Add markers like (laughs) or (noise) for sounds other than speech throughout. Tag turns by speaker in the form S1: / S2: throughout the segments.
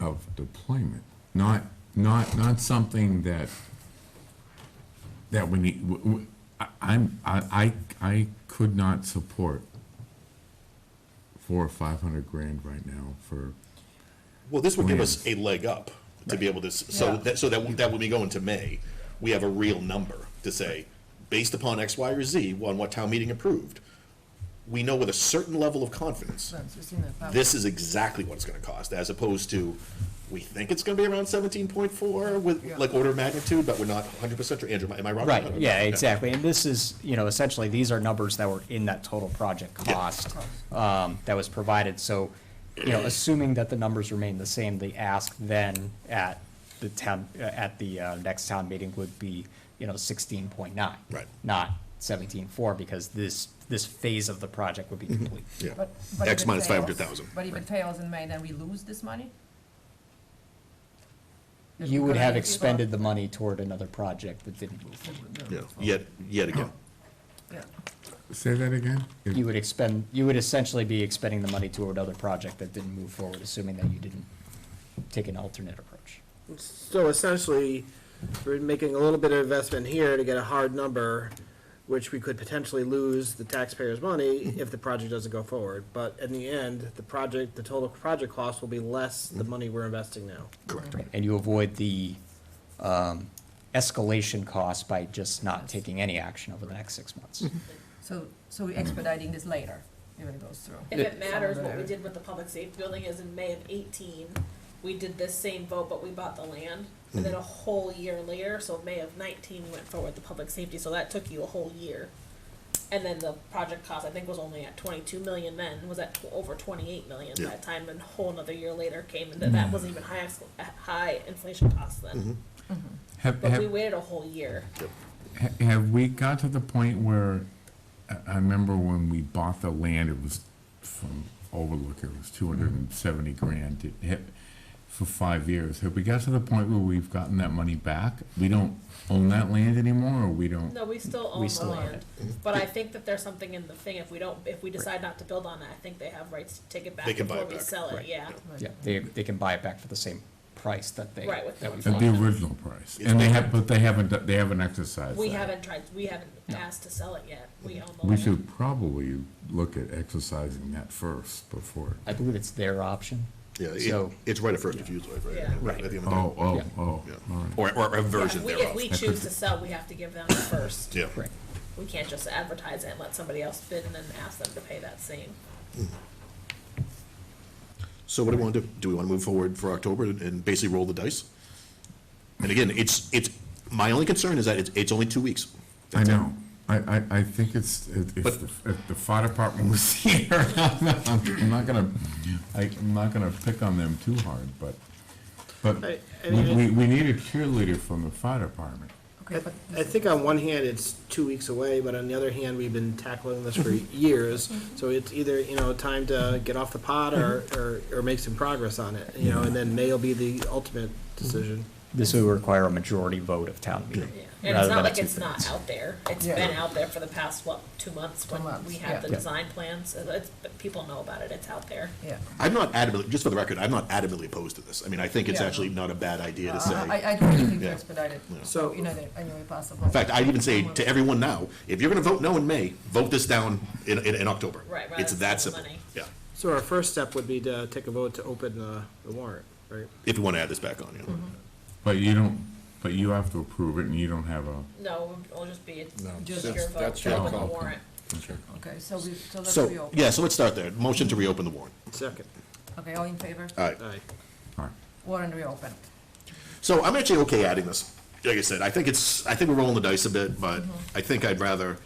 S1: of deployment, not, not, not something that, that we need, w- w- I- I'm, I, I, I could not support four or five hundred grand right now for,
S2: Well, this would give us a leg up to be able to, s- so
S3: Yeah.
S2: that, so that, that when we go into May, we have a real number to say, based upon X, Y, or Z, on what town meeting approved, we know with a certain level of confidence,
S3: So, 16,500.
S2: this is exactly what it's gonna cost, as opposed to, we think it's gonna be around seventeen point four with,
S3: Yeah.
S2: like, order of magnitude, but we're not hundred percent sure. Andrew, am I- am I wrong?
S4: Right, yeah,
S2: Okay.
S4: exactly. And this is, you know, essentially, these are numbers that were in that total project
S2: Yeah.
S4: cost um, that was provided. So, you know, assuming that the numbers remain the same, the ask then at the town, uh, at the uh, next town meeting would be, you know, sixteen point nine.
S2: Right.
S4: Not seventeen four, because this, this phase of the project would be
S2: Mm-hmm.
S4: complete.
S2: Yeah.
S3: But- but
S2: X
S3: if it
S2: minus
S3: fails-
S2: 500,000,
S3: But if it fails in May, then we lose this money? If
S4: You
S3: we're
S4: would
S3: gonna
S4: have
S3: give people-
S4: expended the money toward another project that didn't move forward.
S2: Yeah, yet, yet again.
S3: Yeah.
S1: say that again?
S4: You would expend, you would essentially be expending the money toward another project that didn't move forward, assuming that you didn't take an alternate approach.
S5: So essentially, we're making a little bit of investment here to get a hard number, which we could potentially lose the taxpayers' money if the project doesn't go forward. But in the end, the project, the total project cost will be less the money we're investing now.
S2: Correct.
S4: And you avoid the um, escalation cost by just not taking any action over the next six months.
S6: Mm-hmm.
S3: So, so we're expediting this later, if it goes through.
S6: If it matters, what we did with the public safety building is in May of eighteen, we did this same vote, but we bought the land. And then a whole year later, so May of nineteen went forward the public safety, so that took you a whole year. And then the project cost, I think, was only at twenty-two million then, was at tw- over twenty-eight million
S2: Yeah.
S6: that time, and a whole another year later came, and that, that wasn't even high, ex- uh, high inflation cost then.
S1: Have,
S6: But we
S1: have,
S6: waited a whole year.
S1: ha- have we got to the point where, I, I remember when we bought the land, it was from Overlook, it was two hundred and seventy grand, it hit for five years. Have we got to the point where we've gotten that money back? We don't own that land anymore, or we don't?
S6: No, we still own the
S4: still own
S6: land, but I think that there's something in the thing, if we don't, if we decide not to build on it, I think they have rights to take it back
S2: They can buy
S6: before
S2: it
S6: we
S2: back,
S6: sell it, yeah.
S4: Yeah, they, they can buy it back for the same price that they,
S6: Right, with
S4: that we
S6: the-
S1: At
S4: bought.
S1: the
S4: it.
S1: original price, and they have, but they haven't, do- they haven't exercised
S6: We
S1: that.
S6: haven't tried, we haven't asked to sell it yet, we own the
S1: We
S6: land.
S1: should probably look at exercising that first before,
S4: I believe it's their option.
S2: Yeah, it,
S4: So-
S2: it's right at first refusal, right?
S6: Yeah.
S2: Right. At the end of the day.
S1: oh, oh,
S4: Yeah.
S1: oh, all
S2: Yeah.
S1: right.
S2: Or, or a version
S6: If we, if
S2: thereof.
S6: we choose to sell, we have to give them first,
S2: Yeah.
S4: Right.
S6: we can't just advertise it and let somebody else bid and then ask them to pay that same.
S2: So what do we want to do? Do we want to move forward for October and basically roll the dice? And again, it's, it's, my only concern is that it's, it's only two weeks.
S1: I know, I, I, I think it's, if, if
S2: But-
S1: the- if the fire department was (laughs) here, I'm not gonna, I, I'm not gonna pick on them too hard, but, but
S5: I- I
S1: we,
S5: mean,
S1: we, we need a cheerleader from the fire department.
S3: Okay, but
S5: I think on one hand, it's two weeks away, but on the other hand, we've been tackling this for years. So it's either, you know, time to get off the pot or, or, or make some progress on it, you know, and then May will be the ultimate decision.
S4: This would require a majority vote of town meeting.
S6: Yeah, and
S4: rather
S6: it's
S4: than
S6: not
S4: a
S6: like it's
S4: two-thirds.
S6: not out there, it's
S3: Yeah.
S6: been out there for the past, what, two months when
S3: months,
S6: we
S3: yeah.
S6: have the
S3: Yeah.
S6: design plans, so it's, but people know about it, it's out there.
S3: yeah.
S2: I'm not adamantly, just for the record, I'm not adamantly opposed to this. I mean, I think it's
S3: Yeah.
S2: actually not a bad idea
S6: Uh,
S2: to
S3: Uh, I,
S2: say.
S3: I do think we
S2: Yeah.
S3: expedite it,
S5: So-
S3: you know, in any way possible.
S2: In fact, I'd even say to everyone now, if you're going to vote no in May, vote this down in, in, in October.
S6: Right, rather
S2: It's
S6: than
S2: that
S6: spend the
S2: simple.
S6: money.
S2: Yeah,
S5: So our first step would be to take a vote to open uh, the warrant, right?
S2: if you want to add this back on, you know.
S6: Mm-hmm.
S1: But you don't, but you have to approve it and you don't have a.
S6: No, it'll just be, it's just
S3: That's-
S6: your vote,
S7: that's
S6: to
S7: your
S6: open the
S1: call.
S6: warrant.
S3: Okay, so we, so let's
S2: So,
S3: reopen.
S2: yeah, so let's start there. Motion to reopen the warrant.
S5: Second,
S3: Okay, all in favor?
S2: All right.
S5: aye.
S1: All right.
S3: Warrant reopened.
S2: So I'm actually okay adding this. Like I said, I think it's, I think we're rolling the dice a bit, but I think I'd rather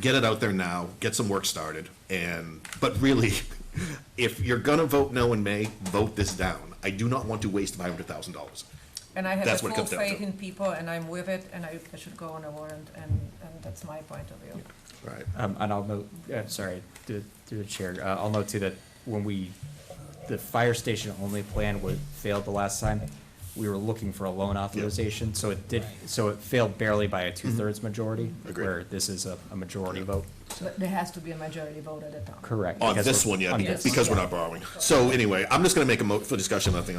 S2: get it out there now, get some work started, and, but really, (laughs) if you're gonna vote no in May, vote this down. I do not want to waste five hundred thousand dollars.
S3: And I have a
S2: That's what it
S3: full
S2: comes down
S3: faith
S2: to.
S3: in people, and I'm with it, and I I should go on a warrant, and, and that's my point of view.
S2: Right.
S4: Um, and I'll note, uh, sorry, through, through the chair, uh, I'll note too that when we, the fire station only plan was, failed the last time, we were looking for a loan authorization, so it did, so it failed barely by a two-thirds majority,
S2: Mm-hmm. Agreed.
S4: where this is a, a majority vote.
S3: But there has to be a majority vote at the time.
S4: Correct.
S2: On
S4: because
S2: this
S4: we're-
S2: one, yeah,
S4: on
S2: because-
S4: this one.
S2: because we're not borrowing. So anyway, I'm just gonna make a mo, for discussion, nothing else.